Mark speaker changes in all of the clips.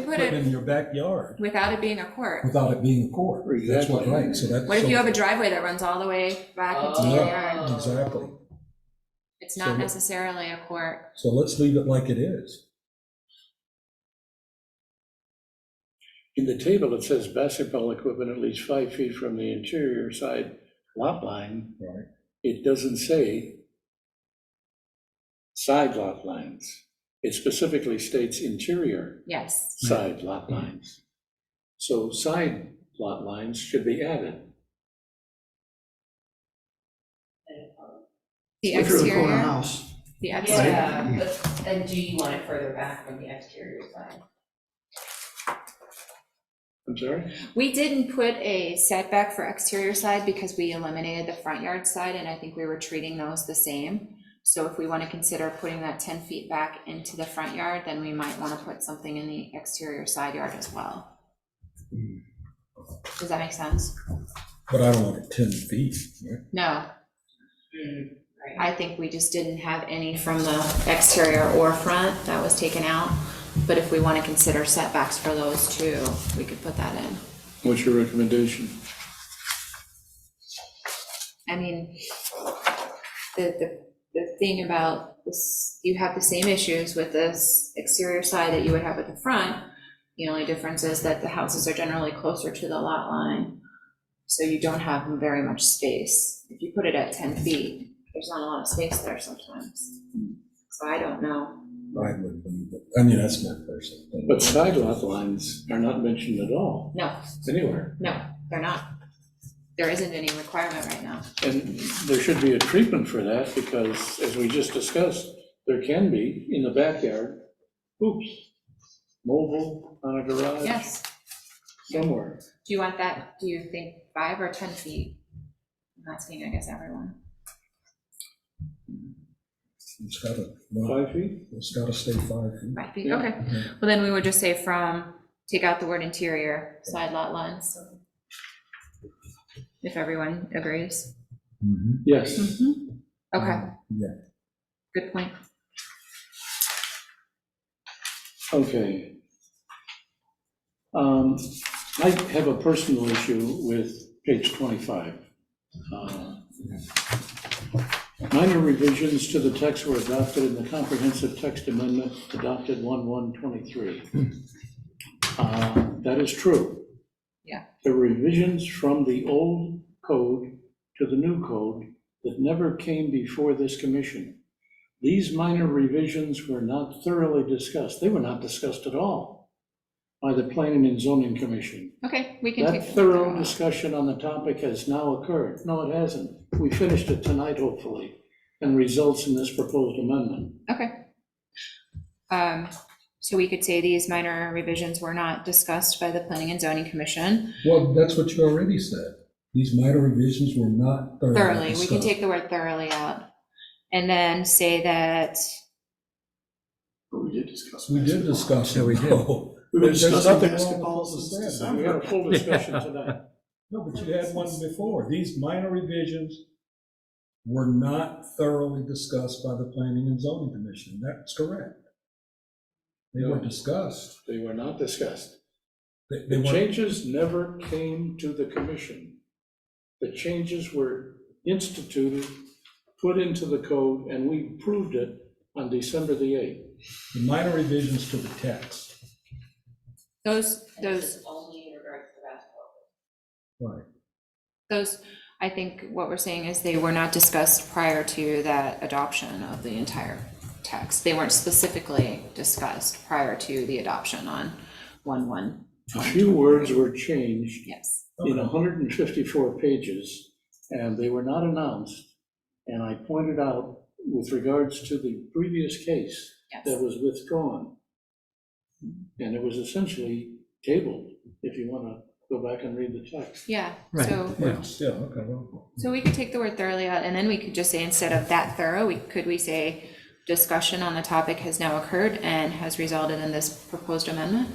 Speaker 1: would
Speaker 2: put in
Speaker 1: have,
Speaker 2: your backyard
Speaker 1: without it being a court.
Speaker 2: without it being a court. That's what,
Speaker 3: Exactly.
Speaker 2: right, so that's.
Speaker 1: What if you have a driveway that runs all the way back into your
Speaker 2: Oh.
Speaker 1: yard?
Speaker 2: Exactly.
Speaker 1: It's
Speaker 2: So-
Speaker 1: not necessarily a court.
Speaker 2: So let's leave it like it is.
Speaker 3: In the table, it says basketball equipment at least five feet from the interior side lot line.
Speaker 2: Right.
Speaker 3: It doesn't say side lot lines. It specifically states interior
Speaker 1: Yes,
Speaker 3: side lot lines. So side lot lines should be added.
Speaker 1: the
Speaker 4: Which would record a
Speaker 1: exterior,
Speaker 4: house.
Speaker 1: the exterior.
Speaker 5: Yeah, but then do you want it further back from the exterior side?
Speaker 3: I'm sorry?
Speaker 1: We didn't put a setback for exterior side because we eliminated the front yard side, and I think we were treating those the same. So if we want to consider putting that ten feet back into the front yard, then we might want to put something in the exterior side yard as well.
Speaker 2: Hmm.
Speaker 1: Does that make sense?
Speaker 2: But I don't want it ten feet, right?
Speaker 1: No,
Speaker 5: Right.
Speaker 1: I think we just didn't have any from the exterior or front, that was taken out. But if we want to consider setbacks for those too, we could put that in.
Speaker 3: What's your recommendation?
Speaker 1: I mean, the, the, the thing about this, you have the same issues with this exterior side that you would have with the front. The only difference is that the houses are generally closer to the lot line, so you don't have very much space. If you put it at ten feet, there's not a lot of space there sometimes. So I don't know.
Speaker 2: I would move it. I mean, that's my personal thing.
Speaker 3: But side lot lines are not mentioned at all,
Speaker 1: No,
Speaker 3: anywhere.
Speaker 1: no, they're not. There isn't any requirement right now.
Speaker 3: And there should be a treatment for that, because as we just discussed, there can be in the backyard, oops, mobile on a garage
Speaker 1: Yes.
Speaker 3: somewhere.
Speaker 1: Do you want that, do you think five or ten feet? I'm asking, I guess, everyone.
Speaker 2: It's gotta, well,
Speaker 3: Five feet?
Speaker 2: it's gotta stay five feet.
Speaker 1: Might be,
Speaker 3: Yeah.
Speaker 1: okay.
Speaker 2: Mhm.
Speaker 1: Well, then we would just say from, take out the word interior, side lot lines. If everyone agrees.
Speaker 2: Mhm.
Speaker 3: Yes.
Speaker 1: Okay,
Speaker 3: Um,
Speaker 2: Yeah,
Speaker 1: good point.
Speaker 3: Okay. Um, I have a personal issue with page 25. Uh, Minor revisions to the text were adopted in the comprehensive text amendment adopted 1/1/23. Uh, That is true.
Speaker 1: Yeah.
Speaker 3: The revisions from the old code to the new code that never came before this commission. These minor revisions were not thoroughly discussed. They were not discussed at all by the Planning and Zoning Commission.
Speaker 1: Okay, we can take.
Speaker 3: That thorough discussion on the topic has now occurred. No, it hasn't. We finished it tonight, hopefully, and results in this proposed amendment.
Speaker 1: Okay. Um, so we could say these minor revisions were not discussed by the planning and zoning commission
Speaker 2: well, that's what you already said. These minor revisions were not thoroughly
Speaker 1: thoroughly. We can
Speaker 2: discussed.
Speaker 1: take the word thoroughly out. And then say that,
Speaker 4: But we did discuss.
Speaker 2: We did discuss.
Speaker 6: Yeah, we did.
Speaker 2: No,
Speaker 4: We've been
Speaker 2: There's
Speaker 4: discussing
Speaker 2: nothing wrong
Speaker 4: basketball
Speaker 2: with what
Speaker 4: since
Speaker 2: was said.
Speaker 3: We
Speaker 4: December.
Speaker 3: had a full discussion tonight.
Speaker 2: but you had one before. These minor revisions were not thoroughly discussed by the planning and zoning commission. That's correct. They were discussed.
Speaker 3: They were not discussed.
Speaker 2: They, they
Speaker 3: The
Speaker 2: weren't.
Speaker 3: changes never came to the commission. The changes were instituted, put into the code, and we approved it on December the 8th.
Speaker 2: the minor revisions to the text.
Speaker 1: those,
Speaker 5: And this
Speaker 1: those
Speaker 5: is only in regards to basketball.
Speaker 2: Right.
Speaker 1: Those, I think what we're saying is they were not discussed prior to that adoption of the entire text. They weren't specifically discussed prior to the adoption on one one,
Speaker 3: A few words were changed
Speaker 1: yes.
Speaker 3: in 154 pages, and they were not announced. And I pointed out with regards to the previous case
Speaker 1: Yes.
Speaker 3: that was withdrawn. And it was essentially tabled, if you want to go back and read the text.
Speaker 1: Yeah,
Speaker 6: Right.
Speaker 1: so,
Speaker 6: Yeah.
Speaker 2: Yeah, okay, well,
Speaker 1: so we could take the word thoroughly out, and then we could just say, instead of that thorough, we, could we say, discussion on the topic has now occurred and has resulted in this proposed amendment?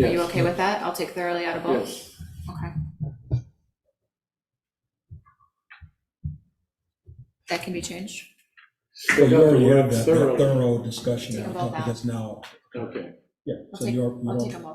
Speaker 1: Are you
Speaker 3: Yes.
Speaker 1: okay with that? I'll take thoroughly out of both?
Speaker 3: Yes.
Speaker 1: Okay. That can be changed?
Speaker 2: So you already have that that
Speaker 3: Thorough.
Speaker 2: thorough discussion
Speaker 1: Take
Speaker 2: on
Speaker 1: them
Speaker 2: the
Speaker 1: both
Speaker 2: topic
Speaker 1: out.
Speaker 2: that's now,
Speaker 3: Okay.
Speaker 2: yeah,
Speaker 1: I'll
Speaker 2: so
Speaker 1: take-
Speaker 2: you're, you
Speaker 1: I'll
Speaker 2: don't
Speaker 1: take them all.